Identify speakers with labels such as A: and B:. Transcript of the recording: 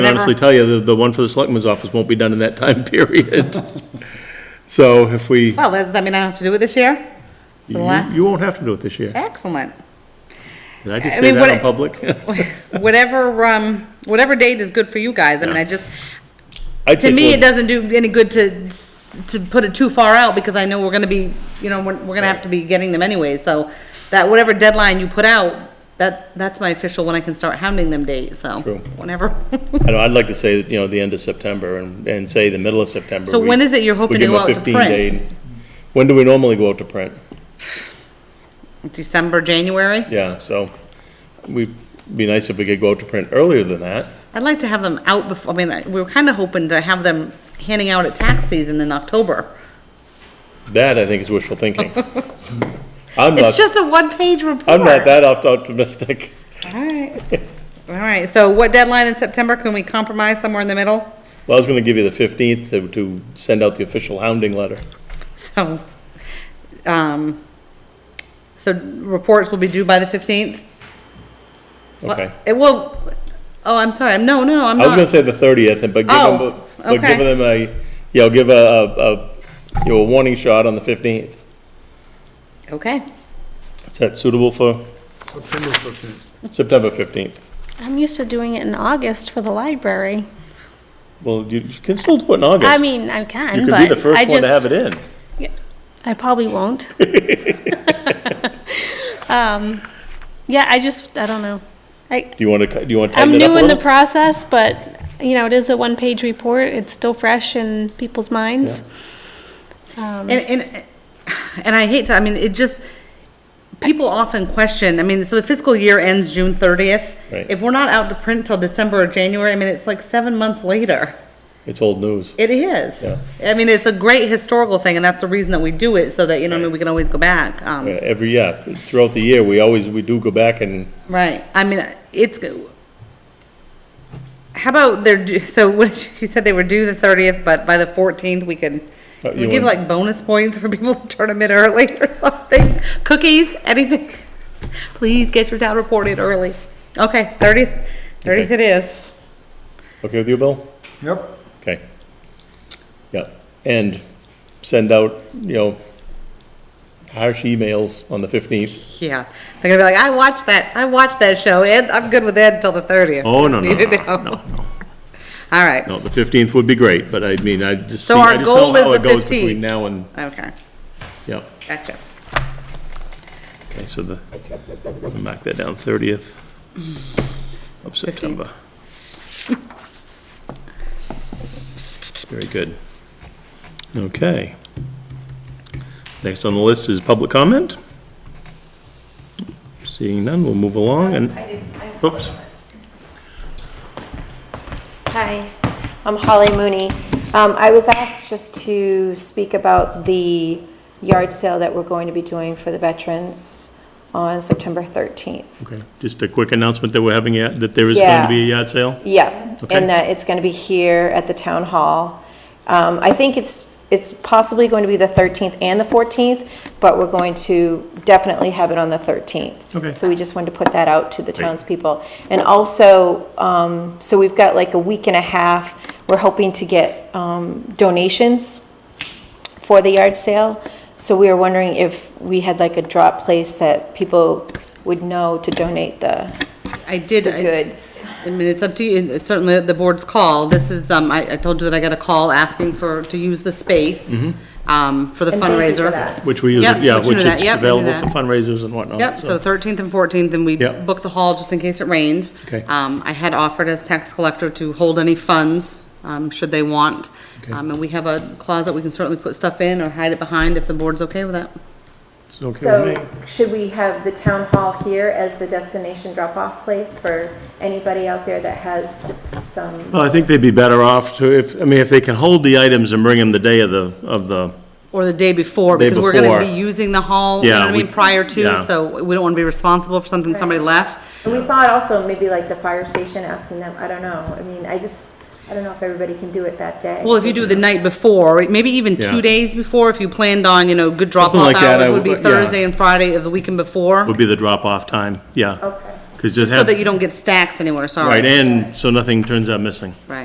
A: honestly tell you, the, the one for the selectman's office won't be done in that time period. So if we,
B: Well, does that mean I don't have to do it this year? For the
A: you
B: last?
A: you won't have to do it this year.
B: Excellent.
A: Did I
B: Eh, I
A: just say
B: mean, what
A: that in
B: I-
A: public?
B: Whatever, um, whatever date is good for you guys, I mean, I just,
A: I'd
B: to
A: take
B: me,
A: one-
B: it doesn't do any good to, to put it too far out, because I know we're gonna be, you know, we're, we're gonna have to be getting them anyway, so that whatever deadline you put out, that, that's my official when I can start hounding them date, so,
A: True.
B: whenever.
A: I know, I'd like to say, you know, the end of September and, and say the middle of September.
B: So
A: We-
B: when is it you're hoping
A: we give
B: to go
A: them a
B: out to
A: 15
B: print?
A: day- When do we normally go out to print?
B: December, January?
A: Yeah, so we'd be nice if we could go out to print earlier than that.
B: I'd like to have them out before, I mean, I- we were kinda hoping to have them handing out at tax season in October.
A: That, I think, is wishful thinking. I'm
B: It's
A: not,
B: just a one-page report.
A: I'm not that opt- optimistic.
B: Alright, alright, so what deadline in September, can we compromise somewhere in the middle?
A: Well, I was gonna give you the fifteenth to, to send out the official hounding letter.
B: So, um, so reports will be due by the fifteenth?
A: Okay.
B: It will, oh, I'm sorry, I'm- no, no, I'm
A: I was gonna
B: not,
A: say the thirtieth, but give them, a-
B: Oh,
A: but give
B: okay.
A: them a, you know, give a, a, a, you know, a warning shot on the fifteenth.
B: okay.
A: Is that suitable for
C: September 15th.
A: September fifteenth?
D: I'm used to doing it in August for the library.
A: Well, you can still do it in August.
D: I mean, I can,
A: You
D: but
A: could be the first
D: I
A: one to have it
D: just,
A: in.
D: I probably won't. Um, yeah, I just, I don't know. I,
A: Do you wanna, cut- do you wanna
D: I'm
A: tighten it up a
D: new in the
A: little?
D: process, but, you know, it is a one-page report. It's still fresh in people's minds. Um,
B: And, and, and I hate to, I mean, it just, people often question, I mean, so the fiscal year ends June thirtieth.
A: Right.
B: If we're not out to print till December or January, I mean, it's like seven months later.
A: It's old news.
B: It is.
A: Yeah.
B: I mean, it's a great historical thing, and that's the reason that we do it, so that, you know, I mean, we can always go back. Um,
A: Yeah, Uh, Every, yeah, throughout the year, we always, we do go back and
B: Right, I mean, it's, go- how about their, due- so what, you said they were due the thirtieth, but by the fourteenth, we could,
A: Uh,
B: can
A: you
B: we give
A: want-
B: like bonus points for people to turn them in early or something? Cookies, anything? Please get your town reported early. Okay, thirtieth, thirtieth it is.
A: Okay with you, Bill?
C: Yep.
A: Okay. Yeah, and send out, you know, harsh emails on the fifteenth.
B: Yeah, they're gonna be like, I watched that, I watched that show, Ed, I'm good with Ed until the thirtieth.
A: Oh, no, no,
B: Need to
A: no,
B: know.
A: no,
B: All right,
A: No, the fifteenth would be great, but I mean, I just.
B: So
A: see- I
B: our
A: just
B: goal
A: know
B: is
A: how
B: the
A: it goes
B: 15th.
A: Between now and,
B: okay,
A: yeah,
B: gotcha.
A: okay, so the, I'll mark that down, thirtieth of September. Very good. Okay. Next on the list is public comment. Seeing none, we'll move along and, oops.
E: Hi, I'm Holly Mooney. Um, I was asked just to speak about the yard sale that we're going to be doing for the veterans on September 13th.
A: Okay, just a quick announcement that we're having, a- that there is going to
E: Yeah.
A: be a yard sale?
E: Yeah,
A: Okay.
E: and that it's going to be here at the town hall. Um, I think it's, it's possibly going to be the 13th and the 14th, but we're going to definitely have it on the 13th.
A: Okay.
E: So we just wanted to put that out to the townspeople. And also, um, so we've got like a week and a half, we're hoping to get um, donations for the yard sale. So we were wondering if we had like a drop place that people would know to donate the
B: I did. I-
E: goods.
B: I mean, it's up to you, it's certainly the board's call. This is, um, I, I told you that I got a call asking for, to use the space,
A: Mm-hmm.
B: um, for the
E: And thank you for
B: fundraiser.
E: that.
A: Which we use,
B: Yep,
A: yeah,
B: which we
A: which
B: do that,
A: is
B: yep, we do
A: available
B: that.
A: for fundraisers and whatnot.
B: Yep, so thirteenth and fourteenth, and we
A: Yep.
B: booked the hall just in case it rained.
A: Okay.
B: Um, I had offered as tax collector to hold any funds, um, should they want.
A: Okay.
B: Um, and we have a closet we can certainly put stuff in or hide it behind if the board's okay with that.
A: It's okay with me.
E: So, should we have the town hall here as the destination drop-off place for anybody out there that has some?
A: Well, I think they'd be better off to, if, I mean, if they can hold the items and bring them the day of the, of the,
B: Or the day before,
A: Day
B: because we're gonna be
A: before.
B: using the hall, you know
A: Yeah,
B: what I
A: we-
B: mean, prior
A: yeah.
B: to, so we don't wanna be responsible for something somebody left.
E: And we thought also maybe like the fire station, asking them, I don't know, I mean, I just, I don't know if everybody can do it that day.
B: Well, if you do the night before, maybe even two
A: Yeah.
B: days before, if you planned on, you know, good drop-off
A: like that, I
B: hours would
A: would-
B: be
A: yeah.
B: Thursday and Friday of the weekend before.
A: would be the drop-off time, yeah.
E: Okay.
A: Because just
B: So
A: have,
B: that you don't get stacks anywhere, sorry.
A: right, and so nothing turns out missing.